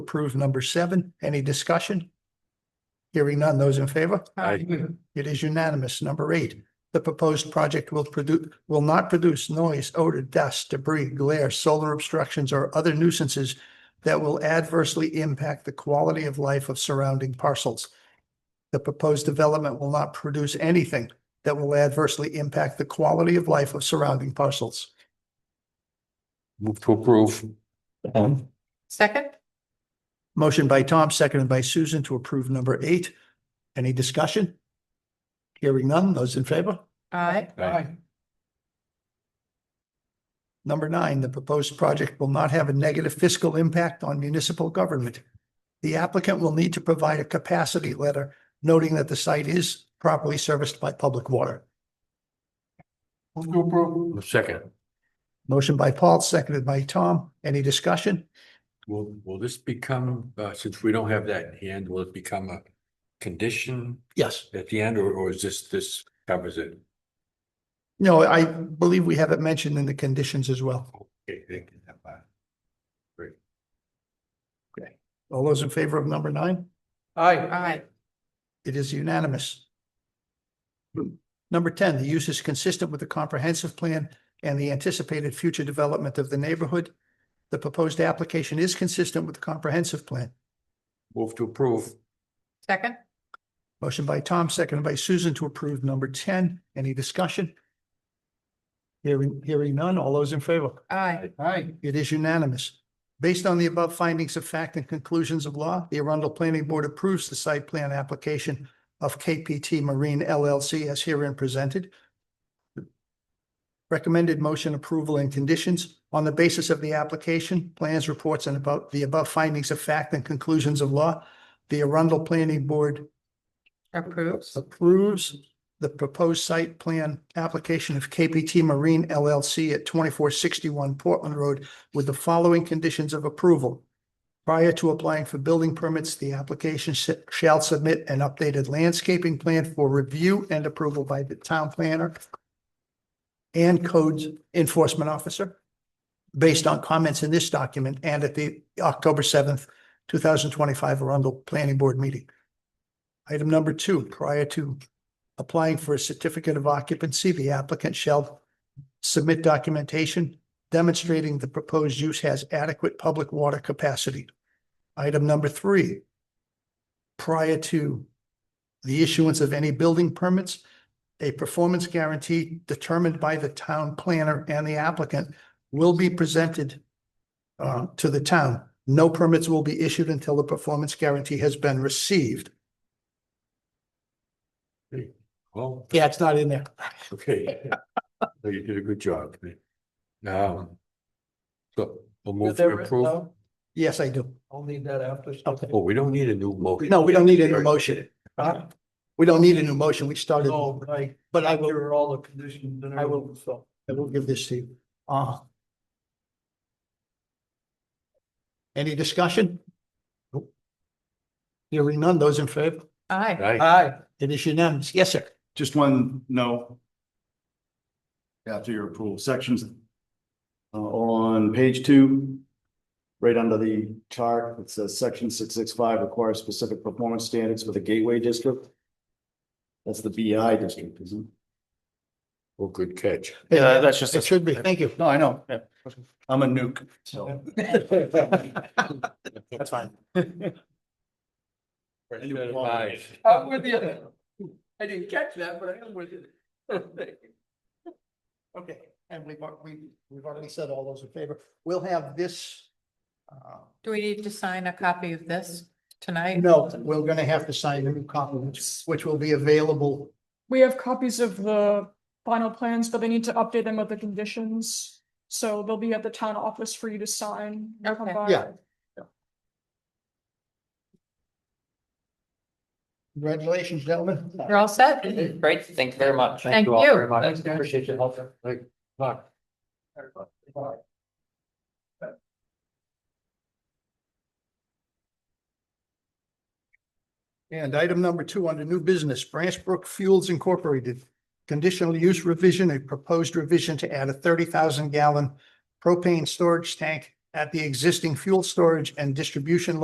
approve number seven. Any discussion? Hearing none, those in favor? Aye. It is unanimous. Number eight, the proposed project will produce, will not produce noise, odor, dust, debris, glare, solar obstructions, or other nuisances that will adversely impact the quality of life of surrounding parcels. The proposed development will not produce anything that will adversely impact the quality of life of surrounding parcels. Move to approve. Second? Motion by Tom, seconded by Susan to approve number eight. Any discussion? Hearing none, those in favor? Aye. Aye. Number nine, the proposed project will not have a negative fiscal impact on municipal government. The applicant will need to provide a capacity letter noting that the site is properly serviced by public water. Move to approve. Second. Motion by Paul, seconded by Tom. Any discussion? Will, will this become, uh, since we don't have that in hand, will it become a condition Yes. at the end or, or is this, this covers it? No, I believe we have it mentioned in the conditions as well. Okay, thank you. That part. All those in favor of number nine? Aye. It is unanimous. Number ten, the use is consistent with the comprehensive plan and the anticipated future development of the neighborhood. The proposed application is consistent with the comprehensive plan. Move to approve. Second? Motion by Tom, seconded by Susan to approve number ten. Any discussion? Hearing, hearing none. All those in favor? Aye. Aye. It is unanimous. Based on the above findings of fact and conclusions of law, the Arundel Planning Board approves the site plan application of KPT Marine LLC as herein presented. Recommended motion approval and conditions on the basis of the application, plans, reports, and about the above findings of fact and conclusions of law. The Arundel Planning Board Approves. approves the proposed site plan application of KPT Marine LLC at twenty-four sixty-one Portland Road with the following conditions of approval. Prior to applying for building permits, the application sh- shall submit an updated landscaping plan for review and approval by the town planner and codes enforcement officer based on comments in this document and at the October seventh, two thousand twenty-five Arundel Planning Board meeting. Item number two, prior to applying for a certificate of occupancy, the applicant shall submit documentation demonstrating the proposed use has adequate public water capacity. Item number three, prior to the issuance of any building permits, a performance guarantee determined by the town planner and the applicant will be presented uh, to the town. No permits will be issued until the performance guarantee has been received. Well, Yeah, it's not in there. okay. So You did a good job. Um. So we'll move Is to that written approve. down? Yes, I do. I'll need that after. Oh, we don't need a new motion. No, we don't need a new motion. Huh? We don't need a new motion. We started, No, I, but I will, there are all the conditions and I will- everything, so. I will give this to you. Uh. Any discussion? Nope. Hearing none, those in favor? Aye. Aye. Aye. It is unanimous. Yes, sir. Just one, no. After your approval sections. Uh, on page two. Right under the chart, it says section six six five requires specific performance standards for the gateway district. That's the BI district, isn't Oh, good catch. Yeah, that's just a- It should be. Thank you. it? No, I know. yeah. I'm a nuke, so. That's fine. Aye. I'm with you. I didn't catch that, but I am with you. Okay, and we've, al- we, we've already said all those in favor. We'll have this. uh, Do we need to sign a copy of this tonight? No, we're gonna have to sign a new copy, which- which will be available We have copies of the final plans, but they need to update them with the conditions. So they'll be at the town office for you to sign. and come Okay. by. Yeah. Congratulations, gentlemen. You're all set? Great, thank you very much. Thank you all you. very much. Appreciate your help. And item number two under new business, Branch Brook Fuels Incorporated. Conditional use revision, a proposed revision to add a thirty thousand gallon propane storage tank at the existing fuel storage and distribution